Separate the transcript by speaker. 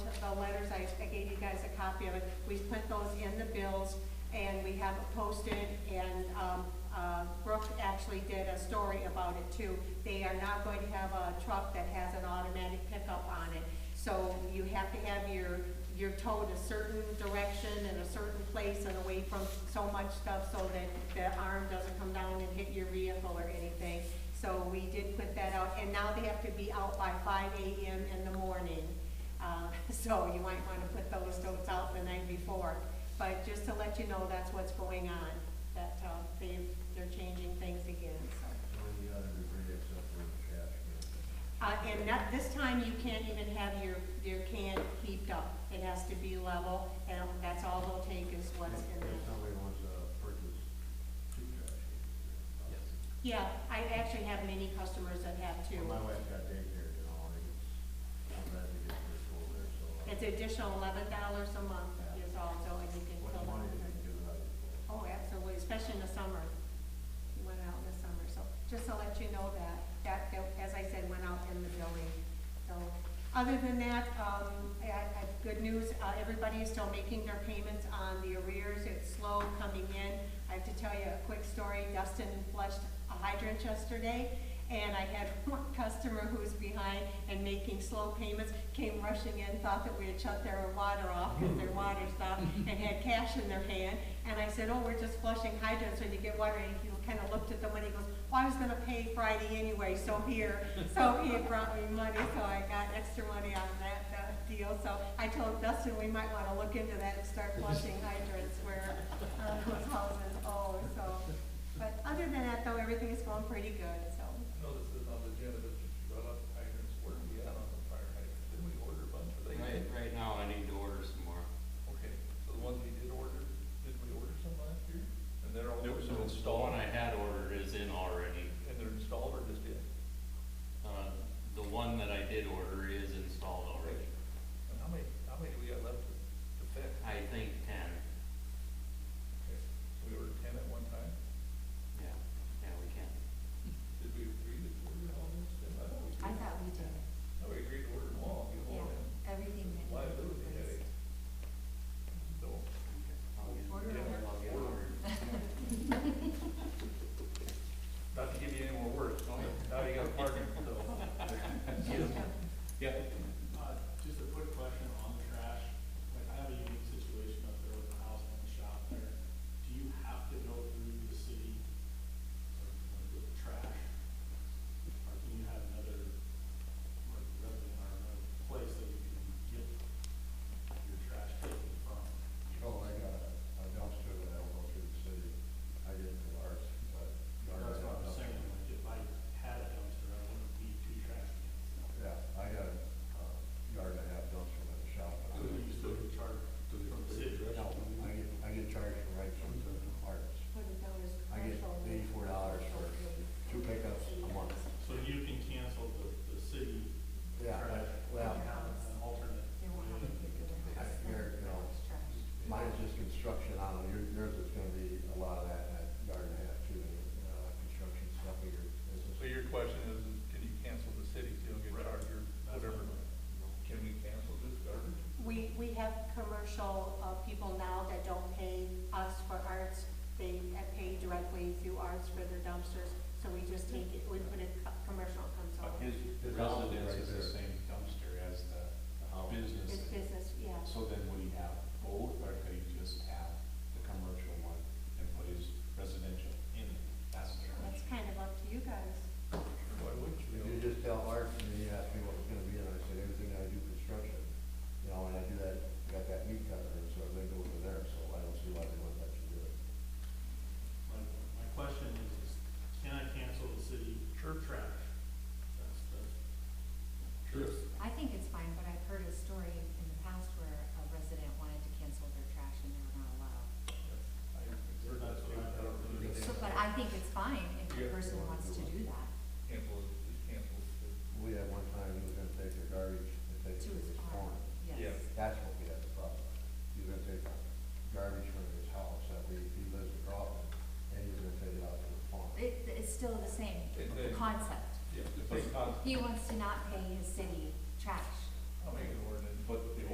Speaker 1: the letters, I I gave you guys a copy of it. We put those in the bills, and we have it posted, and um, uh, Brooke actually did a story about it too. They are not going to have a truck that has an automatic pickup on it. So you have to have your, your towed a certain direction and a certain place and away from so much stuff so that the arm doesn't come down and hit your vehicle or anything. So we did put that out, and now they have to be out by five AM in the morning. Uh, So you might want to put those notes out the night before. But just to let you know, that's what's going on, that uh, they, they're changing things again, so.
Speaker 2: Only the other degree except for the trash can.
Speaker 1: Uh, and not, this time you can't even have your, your can heaped up. It has to be level, and that's all they'll take is what's in
Speaker 2: If
Speaker 1: there.
Speaker 2: somebody wants to purchase two trash cans.
Speaker 3: Yes.
Speaker 1: Yeah, I actually have many customers that have two.
Speaker 2: Well, My wife got daycare and all, and it's, I'm glad to get her school there, so. uh,
Speaker 1: It's additional eleven dollars a month is also, and you can
Speaker 2: What
Speaker 1: fill
Speaker 2: money did
Speaker 1: out.
Speaker 2: they give out for?
Speaker 1: Oh, absolutely, especially in the summer. It Went out in the summer, so just to let you know that, that, that, as I said, went out in the building. So, other than that, um, I, I, good news, uh, everybody is still making their payments on the arrears. It's slow coming in. I have to tell you a quick story. Dustin flushed a hydrant yesterday, and I had one customer who was behind and making slow payments, came rushing in, thought that we had shut their water off, because their water stopped, and had cash in their hand. And I said, oh, we're just flushing hydrants when you get water, and he kind of looked at the money, and goes, well, I was gonna pay Friday anyway, so here. So he had brought me money, so I got extra money on that, uh, deal. So I told Dustin, we might wanna look into that and start flushing hydrants where, uh, those houses owe, so. But other than that, though, everything is going pretty good, so.
Speaker 4: No, this is on the agenda, but you brought up hydrants, where are we at on the fire hydrants? Didn't we order a bunch of these?
Speaker 3: Right, right now, I need to order some more.
Speaker 4: Okay, so the ones we did order, did we order some last year? And they're all.
Speaker 3: Nope, so it's the one I had ordered is in already.
Speaker 4: And they're installed or just yet?
Speaker 3: Uh, the one that I did order is installed already.
Speaker 4: And how many, how many do we got left to, to fix?
Speaker 3: I think ten.
Speaker 4: Okay, So we ordered ten at one time?
Speaker 3: Yeah, yeah, we can.
Speaker 4: Did we agree to order all those? I thought we
Speaker 5: I
Speaker 4: agreed.
Speaker 5: thought we did,
Speaker 4: No, we agreed to order them all, you know, and
Speaker 5: yeah, everything that needed
Speaker 4: Liability headache.
Speaker 5: replaced.
Speaker 4: so.
Speaker 3: I'll get-
Speaker 5: Order
Speaker 3: yeah,
Speaker 5: them.
Speaker 3: I'll get ordered.
Speaker 4: Not to give you any more words, don't you? now you got a partner, so. Yeah.
Speaker 6: Uh, Just a quick question on the trash. Like, I have a unique situation up there with the house and the shop there. Do you have to go through the city like, with trash? Or can you have another, like, resident or another place that you can get your trash taken from?
Speaker 2: Oh, I got a a dumpster that I will go through the city. I did it for ours, but.
Speaker 6: That's what I'm
Speaker 2: Ours-
Speaker 6: saying, like, if I had a dumpster, I wouldn't be too trash cans.
Speaker 2: Yeah, I got a uh, yard and a half dumpster at the shop. but
Speaker 6: So you still get charged from the city.
Speaker 2: No, I get, I get charged for right from the parts.
Speaker 1: Put it down as
Speaker 2: I get
Speaker 1: commercial.
Speaker 2: eighty-four dollars for two pickups a month.
Speaker 6: So you can cancel the, the city
Speaker 2: Yeah,
Speaker 6: trash. and
Speaker 2: well-
Speaker 6: have An alternate.
Speaker 5: They won't have to get rid of
Speaker 2: I
Speaker 5: us.
Speaker 2: figured, you know,
Speaker 5: Trash.
Speaker 2: Mine's just construction, I don't know, your- yours is gonna be a lot of that, that yard and a half too, you know, that construction stuff of your business.
Speaker 4: So your question is, can you cancel the city so you don't get charged or whatever? Can we cancel this garbage?
Speaker 1: We, we have commercial, uh, people now that don't pay us for arts, they uh, pay directly through arts for their dumpsters, so we just take it, we put a co- commercial comes
Speaker 7: But
Speaker 1: over.
Speaker 7: his
Speaker 2: His
Speaker 7: residence
Speaker 2: house is
Speaker 7: is the
Speaker 2: right
Speaker 7: same dumpster as the
Speaker 2: house.
Speaker 7: business.
Speaker 1: It's business, yeah.
Speaker 7: So then would he have both, or could he just have the commercial one and put his residential in it? That's the
Speaker 1: That's
Speaker 7: question.
Speaker 1: kind of up to you guys.
Speaker 4: Why wouldn't you?
Speaker 2: If you just tell Art, and he asked me what it's gonna be, and I said, everything I do construction, you know, and I do that, got that meat cutter, and so they go over there, so I don't see why they wouldn't let you do it.
Speaker 6: My, my question is, is can I cancel the city church trash? That's the.
Speaker 5: I think it's fine, but I've heard a story in the past where a resident wanted to cancel their trash and they were not allowed.
Speaker 4: We're not saying that or we're gonna
Speaker 5: So, but I think it's fine if the
Speaker 4: Yeah.
Speaker 5: person wants to do that,
Speaker 4: Cancel, it, just cancel. it.
Speaker 2: We had one time, he was gonna take the garbage and take it
Speaker 5: to
Speaker 2: to
Speaker 5: his
Speaker 2: his farm.
Speaker 5: farm, yes.
Speaker 4: Yeah.
Speaker 2: That's what we had the problem. He was gonna take garbage from his house, that we, he lives in Groveland, and he was gonna take it out to the farm.
Speaker 5: It, it's still the same
Speaker 4: It- it-
Speaker 5: concept.
Speaker 4: Yeah, the same concept.
Speaker 5: He wants to not pay his city trash.